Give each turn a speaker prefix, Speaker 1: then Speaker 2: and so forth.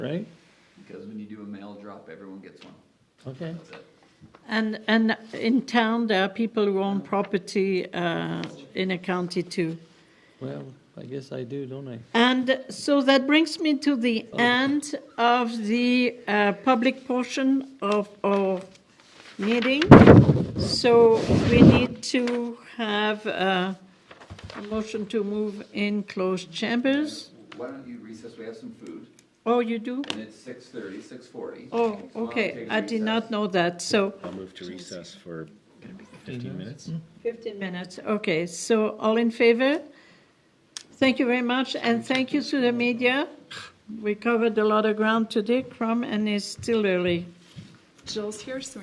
Speaker 1: right?
Speaker 2: Because when you do a mail drop, everyone gets one.
Speaker 1: Okay.
Speaker 2: That's it.
Speaker 3: And, and in town, there are people who own property uh, in a county too.
Speaker 1: Well, I guess I do, don't I?
Speaker 3: And so that brings me to the end of the uh, public portion of our meeting. So we need to have uh, a motion to move in closed chambers.
Speaker 2: Why don't you recess, we have some food,
Speaker 3: Oh, you do?
Speaker 2: and it's six thirty, six forty.
Speaker 3: Oh, okay, I did not know that, so.
Speaker 4: I'll move to recess for 15 minutes.
Speaker 3: 15 minutes, okay, so all in favor? Thank you very much, and thank you to the media. We covered a lot of ground today, Crum, and it's still early.
Speaker 5: Jill's here, so